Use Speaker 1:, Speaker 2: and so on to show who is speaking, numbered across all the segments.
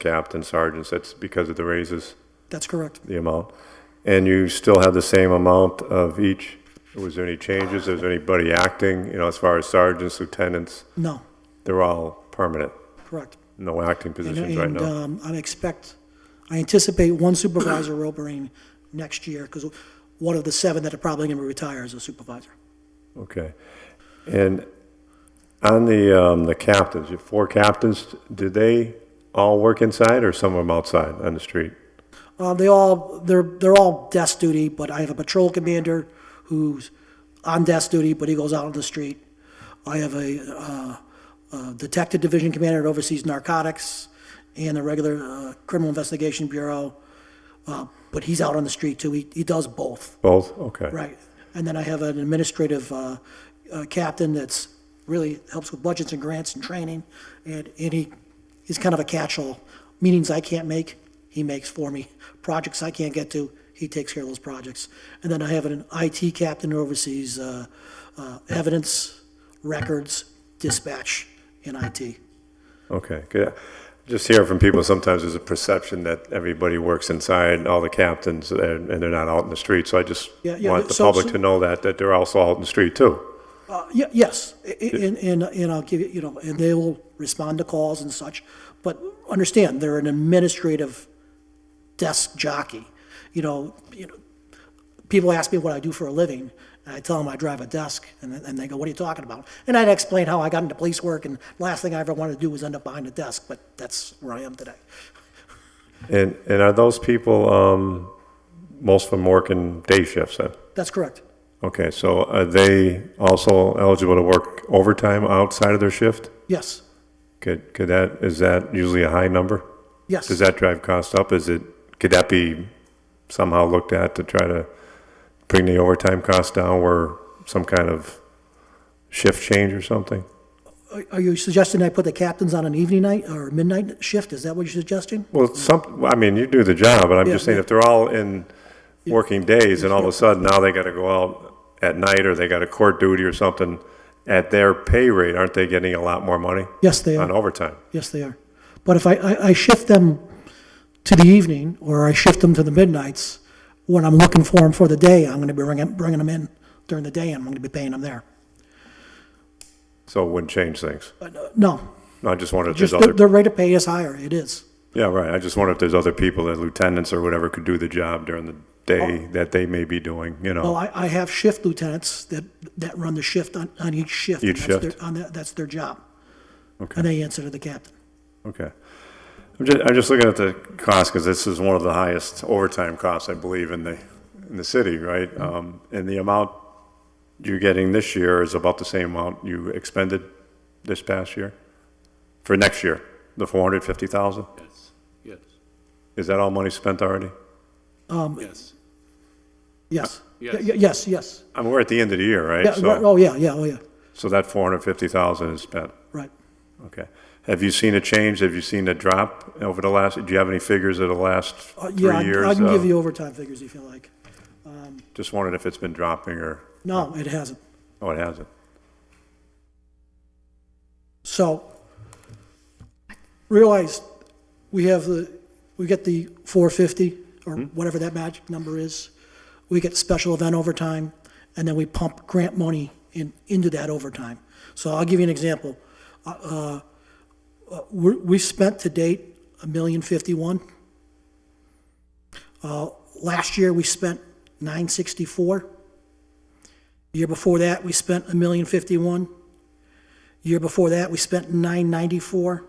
Speaker 1: captain, sergeants, that's because of the raises,
Speaker 2: That's correct.
Speaker 1: the amount. And you still have the same amount of each? Was there any changes? Is there anybody acting, you know, as far as sergeants, lieutenants?
Speaker 2: No,
Speaker 1: They're all permanent,
Speaker 2: correct.
Speaker 1: no acting
Speaker 2: And,
Speaker 1: positions right
Speaker 2: and
Speaker 1: now?
Speaker 2: um, I expect, I anticipate one supervisor will bring next year, because one of the seven that are probably going to retire is a supervisor.
Speaker 1: Okay. And on the, um, the captains, your four captains, did they all work inside or some of them outside on the street?
Speaker 2: Uh, they all, they're, they're all desk duty, but I have a patrol commander who's on desk duty, but he goes out on the street. I have a, uh, uh, detective division commander that oversees narcotics and the regular, uh, criminal investigation bureau. Uh, but he's out on the street too. He, he does both.
Speaker 1: Both? Okay.
Speaker 2: Right. And then I have an administrative uh, uh, captain that's really helps with budgets and grants and training, and, and he, he's kind of a catch-all. Meetings I can't make, he makes for me. Projects I can't get to, he takes care of those projects. And then I have an IT captain who oversees uh, uh, evidence, records, dispatch, and IT.
Speaker 1: Okay, good. Just hear from people, sometimes there's a perception that everybody works inside, all the captains, and, and they're not out in the street, so I just
Speaker 2: Yeah, yeah,
Speaker 1: want the
Speaker 2: so-
Speaker 1: public
Speaker 2: so-
Speaker 1: to know that, that they're also out in the street too.
Speaker 2: Uh, ye- Yes, I- I- and, and, and I'll give you, you know, and they will respond to calls and such, but understand, they're an administrative desk jockey. You know, you know, people ask me what I do for a living, and I tell them I drive a desk, and, then- and they go, what are you talking about? And I'd explain how I got into police work, and last thing I ever wanted to do was end up behind a desk, but that's where I am today.
Speaker 1: And, and are those people, um, most of them working day shifts then?
Speaker 2: That's correct.
Speaker 1: Okay, so are they also eligible to work overtime outside of their shift?
Speaker 2: Yes,
Speaker 1: Could, could that, is that usually a high number?
Speaker 2: yes.
Speaker 1: Does that drive cost up? Is it, could that be somehow looked at to try to bring the overtime cost down or some kind of shift change or something?
Speaker 2: Are- Are you suggesting I put the captains on an evening night or midnight shift? Is that what you're suggesting?
Speaker 1: Well, some, I mean, you do the job, but I'm just
Speaker 2: Yeah,
Speaker 1: saying if they're all in working days and all of a sudden now they gotta go out at night or they got a court duty or something, at their pay rate, aren't they getting a lot more money
Speaker 2: Yes, they are.
Speaker 1: on overtime?
Speaker 2: Yes, they are. But if I, I, I shift them to the evening, or I shift them to the midnights, when I'm looking for them for the day, I'm gonna be bringing, bringing them in during the day, and I'm gonna be paying them there.
Speaker 1: So it wouldn't change things.
Speaker 2: But uh, no,
Speaker 1: I just wondered if there's
Speaker 2: just
Speaker 1: other
Speaker 2: the, the rate of pay is higher, it is.
Speaker 1: Yeah, right. I just wonder if there's other people, that lieutenants or whatever, could do the job during the day
Speaker 2: Oh.
Speaker 1: that they may be doing, you
Speaker 2: Well,
Speaker 1: know?
Speaker 2: I, I have shift lieutenants that, that run the shift on, on each shift. and
Speaker 1: Each
Speaker 2: that's
Speaker 1: shift.
Speaker 2: their- On that, that's their job.
Speaker 1: Okay.
Speaker 2: And they answer to the captain.
Speaker 1: Okay. I'm just, I'm just looking at the cost, because this is one of the highest overtime costs, I believe, in the, in the city, right?
Speaker 2: Mm-hmm.
Speaker 1: Um, and the amount you're getting this year is about the same amount you expended this past year? For next year, the four hundred fifty thousand?
Speaker 3: Yes, yes,
Speaker 1: Is that all money spent already?
Speaker 3: yes.
Speaker 2: Yes.
Speaker 3: yes.
Speaker 2: Y- y- Yes, yes.
Speaker 1: I mean, we're at the end of the year,
Speaker 2: Yeah,
Speaker 1: right?
Speaker 2: right-
Speaker 1: So,
Speaker 2: oh, yeah, yeah, oh, yeah,
Speaker 1: so that four hundred fifty thousand is spent.
Speaker 2: right.
Speaker 1: Okay. Have you seen a change? Have you seen a drop over the last, do you have any figures of the last
Speaker 2: Uh,
Speaker 1: three
Speaker 2: Yeah, I-
Speaker 1: years?
Speaker 2: I can give
Speaker 1: Uh,
Speaker 2: you overtime figures if you like.
Speaker 1: Just wondering if it's been dropping or,
Speaker 2: No, it hasn't.
Speaker 1: oh, it hasn't.
Speaker 2: So realize we have the, we get the 450 or whatever that magic number is. We get special event overtime and then we pump grant money in, into that overtime. So I'll give you an example. Uh, uh, we're- We spent to date a million fifty-one. Uh, Last year, we spent 964. The Year before that, we spent a million fifty-one. Year before that, we spent 994.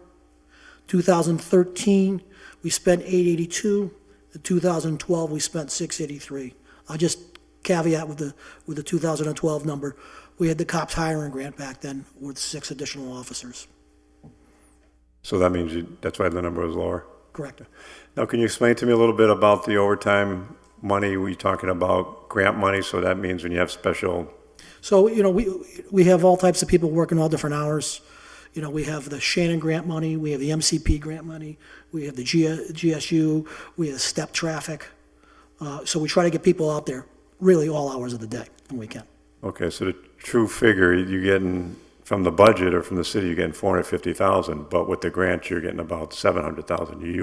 Speaker 2: 2013, we spent 882. In 2012, we spent 683. I'll just caveat with the, with the 2012 number, we had the cops hiring grant back then with six additional officers.
Speaker 1: So that means you, that's why the number was lower.
Speaker 2: Correct.
Speaker 1: Now, can you explain to me a little bit about the overtime money? Were you talking about grant money? So that means when you have special,
Speaker 2: So, you know, we, we have all types of people working all different hours. You know, we have the Shannon grant money, we have the MCP grant money, we have the G- GSU, we have step traffic. Uh, so we try to get people out there really all hours of the day when we can.
Speaker 1: okay, so the true figure, you getting, for from the budget or from the city, you're getting four hundred fifty thousand, but with the grant, you're getting about seven hundred thousand. You